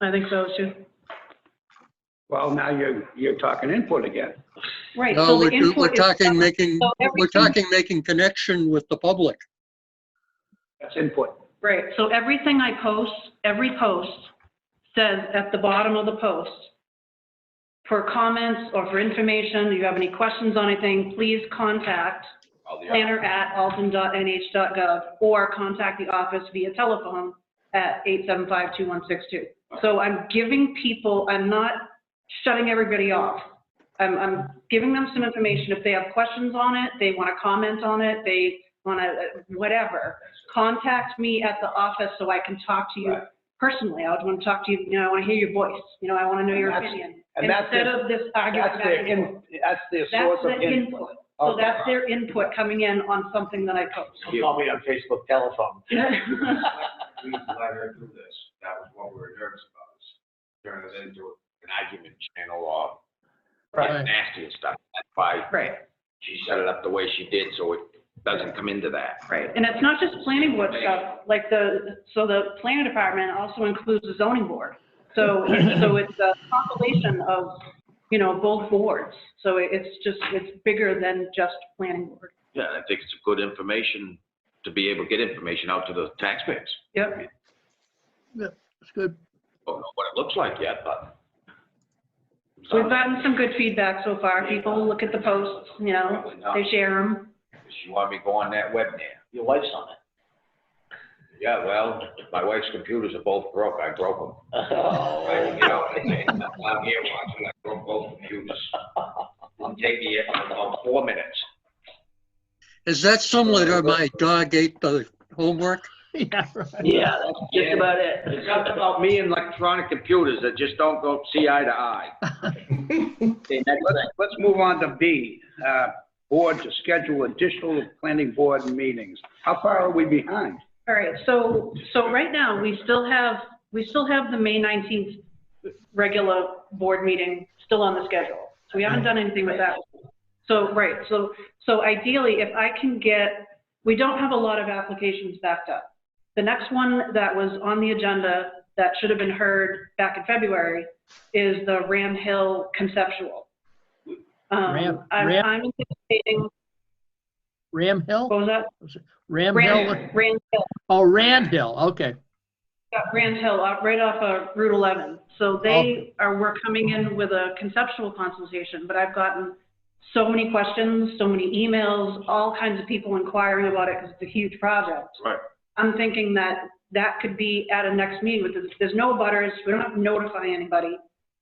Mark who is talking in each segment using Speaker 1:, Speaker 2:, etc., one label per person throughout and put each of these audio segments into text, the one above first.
Speaker 1: I think so too.
Speaker 2: Well, now you're, you're talking input again.
Speaker 1: Right.
Speaker 3: No,
Speaker 1: so the
Speaker 3: we're, do- we're
Speaker 1: input is-
Speaker 3: talking making,
Speaker 1: so
Speaker 3: we're
Speaker 1: everything-
Speaker 3: talking making connection with the public.
Speaker 2: That's input.
Speaker 1: Right, so everything I post, every post says at the bottom of the post, for comments or for information, if you have any questions on anything, please contact planner@alton.nh.gov or contact the office via telephone at 875-2162. So I'm giving people, I'm not shutting everybody off. I'm, I'm giving them some information. If they have questions on it, they want to comment on it, they want to, whatever, contact me at the office so I can talk to you
Speaker 2: Right.
Speaker 1: personally. I would want to talk to you, you know, I want to hear your voice, you know, I want to know
Speaker 2: And
Speaker 1: your
Speaker 2: that's-
Speaker 1: opinion.
Speaker 2: and that's
Speaker 1: Instead
Speaker 2: their-
Speaker 1: of this argument
Speaker 2: That's uh,
Speaker 1: back
Speaker 2: their,
Speaker 1: and forth.
Speaker 2: in- that's their source
Speaker 1: That's
Speaker 2: of
Speaker 1: the
Speaker 2: input.
Speaker 1: input. So
Speaker 2: Okay.
Speaker 1: that's their input coming in on something that I post.
Speaker 4: Don't call me on Facebook telephone.
Speaker 5: We let her do this. That was what we were nervous about, is turn it into an argument channel or
Speaker 3: Right.
Speaker 5: nasty and stuff. That's why
Speaker 1: Right,
Speaker 5: she set it up the way she did, so it doesn't come into that.
Speaker 1: right. And it's not just planning board stuff, like the, so the planning department also includes the zoning board. So, so it's a compilation of, you know, both boards. So it's just, it's bigger than just planning board.
Speaker 5: Yeah, I think it's good information to be able to get information out to the taxpayers.
Speaker 1: Yep,
Speaker 3: That's good.
Speaker 5: Don't know what it looks like yet, but.
Speaker 1: we've gotten some good feedback so far. People look at the posts, you know, they share them.
Speaker 5: She wanted me to go on that web now.
Speaker 4: Your wife's on
Speaker 5: Yeah, well, my wife's computers are both broke. I broke them.
Speaker 4: it.
Speaker 5: You know, I'm here watching, I broke both computers. I'm taking it in about four minutes.
Speaker 3: Is that similar to my dog ate the homework?
Speaker 4: Yeah, that's just about
Speaker 5: There's
Speaker 4: it.
Speaker 5: something about me and electronic computers that just don't go see eye to eye.
Speaker 2: Okay, next, let's- Let's move on to B, uh, board to schedule additional planning board meetings. How far are we behind?
Speaker 1: All right, so, so right now, we still have, we still have the May 19th regular board meeting still on the schedule. So we haven't done anything with that. So, right, so, so ideally, if I can get, we don't have a lot of applications backed up. The next one that was on the agenda that should have been heard back in February is the Ram Hill conceptual. Um,
Speaker 6: Ram-
Speaker 1: I'm
Speaker 6: Ram-
Speaker 1: I'm anticipating,
Speaker 6: Ram
Speaker 1: what
Speaker 6: Hill?
Speaker 1: was that?
Speaker 6: Ram Hill?
Speaker 1: Ram, Ram Hill.
Speaker 6: Oh, Rand Hill, okay.
Speaker 1: Yeah, Grand Hill, uh, right off of Route 11. So they are, we're coming in with a conceptual consultation, but I've gotten so many questions, so many emails, all kinds of people inquiring about it because it's a huge project.
Speaker 5: Right.
Speaker 1: I'm thinking that that could be at a next meeting with, the- there's no butters, we don't have to notify anybody.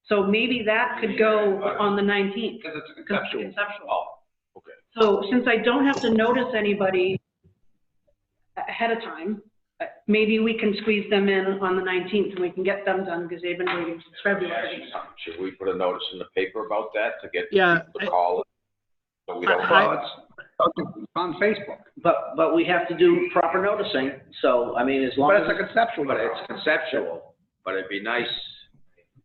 Speaker 1: So maybe that could go on the 19th.
Speaker 5: Because it's a
Speaker 1: because it's
Speaker 5: conceptual.
Speaker 1: Conceptual. So since I don't have to notice anybody ahead of time, uh, maybe we can squeeze them in on the 19th and we can get them done because they've been waiting since February.
Speaker 5: Should we put a notice in the paper about that to get
Speaker 6: Yeah,
Speaker 5: people
Speaker 6: I-
Speaker 5: to call? it? So we don't.
Speaker 6: I-
Speaker 2: Well, it's it's on Facebook,
Speaker 4: But, but we have to do proper noticing, so, I mean, as long
Speaker 2: but it's a
Speaker 4: as
Speaker 2: conceptual.
Speaker 5: But it's conceptual, but it'd be nice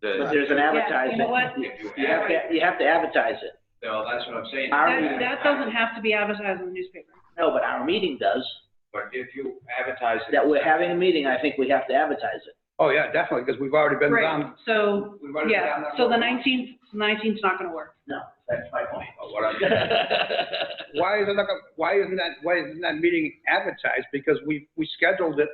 Speaker 4: but
Speaker 5: that.
Speaker 4: there's an
Speaker 1: Yeah, you
Speaker 4: advertisement.
Speaker 1: know what?
Speaker 5: if you
Speaker 4: You have
Speaker 5: have it-
Speaker 4: to, you have to advertise it.
Speaker 5: No, that's what I'm saying.
Speaker 1: That, that doesn't have to be advertised in the newspaper.
Speaker 4: No, but our meeting does,
Speaker 5: But if you advertise it.
Speaker 4: that we're having a meeting, I think we have to advertise it.
Speaker 2: Oh, yeah, definitely, because we've already been
Speaker 1: Right,
Speaker 2: down.
Speaker 1: so,
Speaker 2: we've already been down
Speaker 1: yeah,
Speaker 2: that
Speaker 1: so the
Speaker 2: road.
Speaker 1: 19th, 19th's not going to work.
Speaker 4: No, that's my point.
Speaker 5: But uh, what I'm-
Speaker 2: Why isn't that, why isn't that, why isn't that meeting advertised? Because we, we scheduled it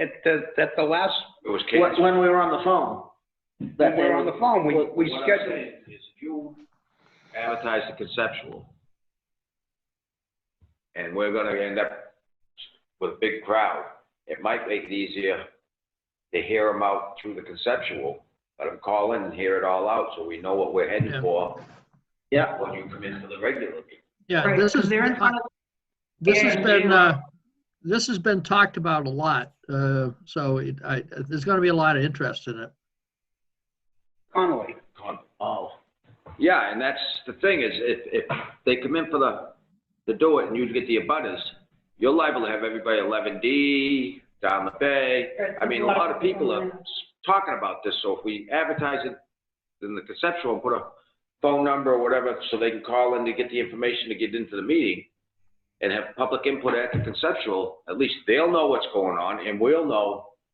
Speaker 2: at the, at the last,
Speaker 5: It was
Speaker 4: When,
Speaker 5: canceled.
Speaker 4: when we were on the phone.
Speaker 2: when we were on the phone, we, we
Speaker 5: What I'm
Speaker 2: scheduled.
Speaker 5: saying Is if you advertise the conceptual, and we're gonna end up with a big crowd, it might make it easier to hear them out through the conceptual, let them call in and hear it all out, so we know what we're heading
Speaker 6: Yeah.
Speaker 5: for
Speaker 4: Yeah,
Speaker 5: when you come in for the regular meeting.
Speaker 6: Yeah,
Speaker 1: Right,
Speaker 6: this
Speaker 1: because
Speaker 6: is, uh,
Speaker 1: they're in front of-
Speaker 6: this has
Speaker 1: Yeah,
Speaker 6: been,
Speaker 1: yeah.
Speaker 6: uh, this has been talked about a lot, uh, so it, I, there's gonna be a lot of interest in it.
Speaker 2: Connolly.
Speaker 4: oh,
Speaker 5: Yeah, and that's the thing is if, if they come in for the, to do it and you get the abutters, you're liable to have everybody eleven D, down the bay. I mean, a lot of people are talking about this, so if we advertise it in the conceptual, and put a phone number or whatever, so they can call in to get the information to get into the meeting and have public input at the conceptual, at least they'll know what's going on and we'll know